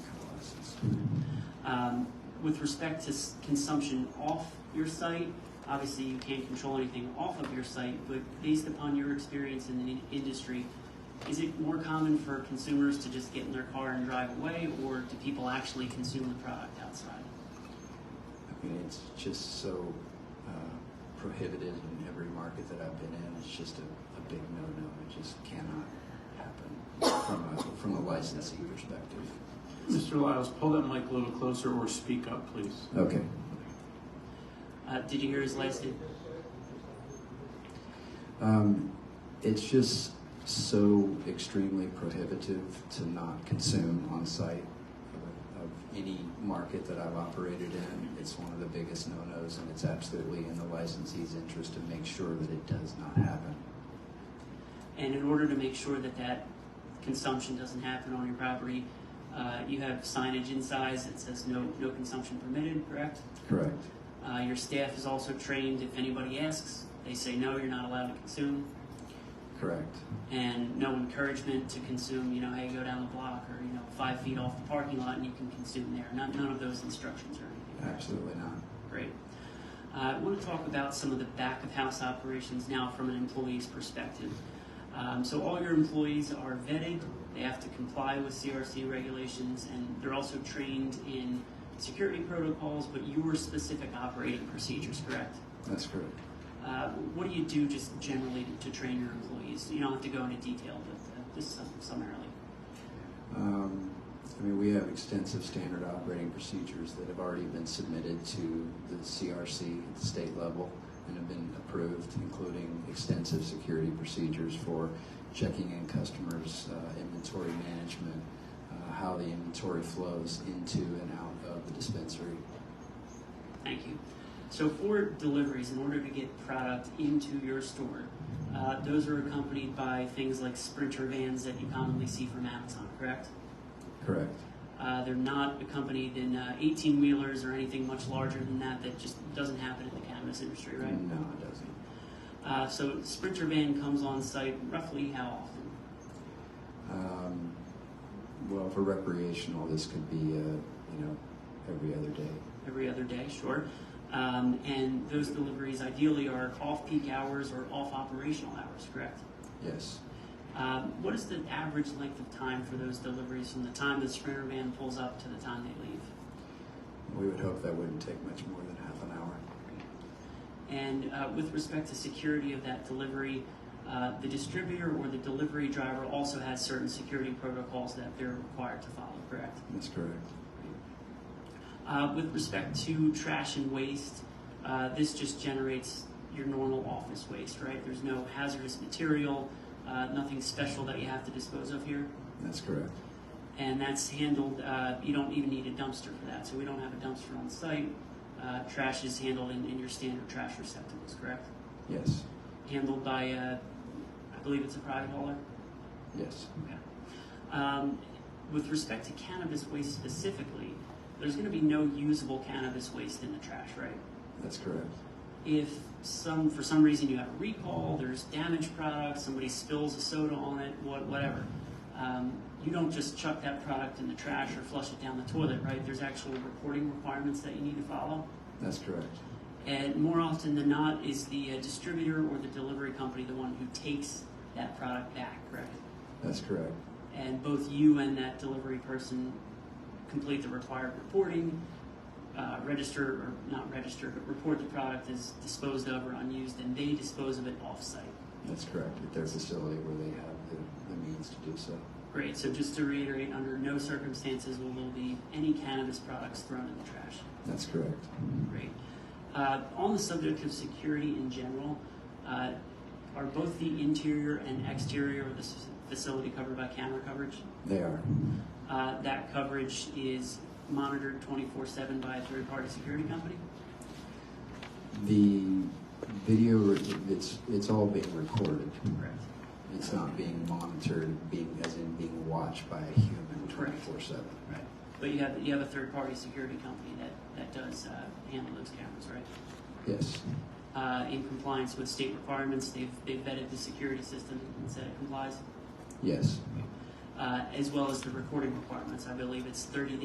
Um, With respect to s- consumption off your site, obviously you can't control anything off of your site, but based upon your experience in the in- industry, is it more common for consumers to just get in their car and drive away, or do people actually consume the product outside? I mean, it's just so uh, prohibited in every market that I've been in. It's just a, a big no-no. It just cannot happen from a, from a licensee perspective. Mr. Lyles, pull that mic a little closer or speak up, please. Okay. Uh, Did you hear his last name? Um, it's just so extremely prohibitive to not consume on site of, of any market that I've operated in. It's one of the biggest no-nos, and it's absolutely in the licensee's interest to make sure that it does not happen. And in order to make sure that that consumption doesn't happen on your property, uh, you have signage inside that says no, no consumption permitted, correct? Correct. Uh, your staff is also trained, if anybody asks, they say no, you're not allowed to consume, Correct. and no encouragement to consume, you know, hey, go down the block, or, you know, five feet off the parking lot and you can consume there. None, none of those instructions or anything. Absolutely not. Great. Uh, I want to talk about some of the back of house operations now from an employee's perspective. Um, so, all your employees are vetted, they have to comply with CRC regulations, and they're also trained in security protocols, but your specific operating procedures, correct? That's correct. Uh, what do you do just generally to, to train your employees? You don't have to go into detail, but uh, just sum- summarily. Um, I mean, we have extensive standard operating procedures that have already been submitted to the CRC at the state level and have been approved, including extensive security procedures for checking in customers, uh, inventory management, uh, how the inventory flows into and out of the dispensary. Thank you. So for deliveries, in order to get product into your store, uh, those are accompanied by things like sprinter vans that you commonly see from Amazon, correct? Correct. Uh, they're not accompanied in uh, 18 wheelers or anything much larger than that that just doesn't happen in the cannabis industry, right? No, it doesn't. Uh, so sprinter van comes on site roughly how often? Um, well, for recreational, this could be, uh, you know, every other day. every other day, sure. Um, and those deliveries ideally are off peak hours or off operational hours, correct? Yes. Um, what is the average length of time for those deliveries from the time the sprinter van pulls up to the time they leave? We would hope that wouldn't take much more than half an hour. And uh, with respect to security of that delivery, uh, the distributor or the delivery driver also has certain security protocols that they're required to follow, correct? That's correct. Uh, with respect to trash and waste, uh, this just generates your normal office waste, right? There's no hazardous material, uh, nothing special that you have to dispose of here. That's correct. And that's handled, uh, you don't even need a dumpster for that. So we don't have a dumpster on site. Uh, trash is handled in, in your standard trash receptacles, correct? Yes. Handled by, uh, I believe it's a private hauler. Yes. Okay. Um, with respect to cannabis waste specifically, there's going to be no usable cannabis waste in the trash, right? That's correct. if some for some reason you have a recall, there's damaged product, somebody spills a soda on it, what, whatever. Um, you don't just chuck that product in the trash or flush it down the toilet, right? There's actual reporting requirements that you need to follow. That's correct. And more often than not, is the uh, distributor or the delivery company the one who takes that product back, correct? That's correct. And both you and that delivery person complete the required reporting, uh, register or not register, but report the product as disposed of or unused, and they dispose of it offsite. That's correct. At their facility where they have the, the means to do so. Great. So just to reiterate, under no circumstances will there be any cannabis products thrown in the trash. That's correct. Great. Uh, on the subject of security in general, uh, are both the interior and exterior of this facility covered by camera coverage? They are. Uh, that coverage is monitored 24/7 by a third-party security company. The video, re- it's, it's all being recorded. Correct. It's not being monitored, being, as in being watched by a human Correct. 24 7. Right. But you have you have a third-party security company that that does uh, handle those cameras, right? Yes. Uh, in compliance with state requirements, they've they've vetted the security system and said it complies, Yes. uh, as well as the recording requirements. I believe it's 30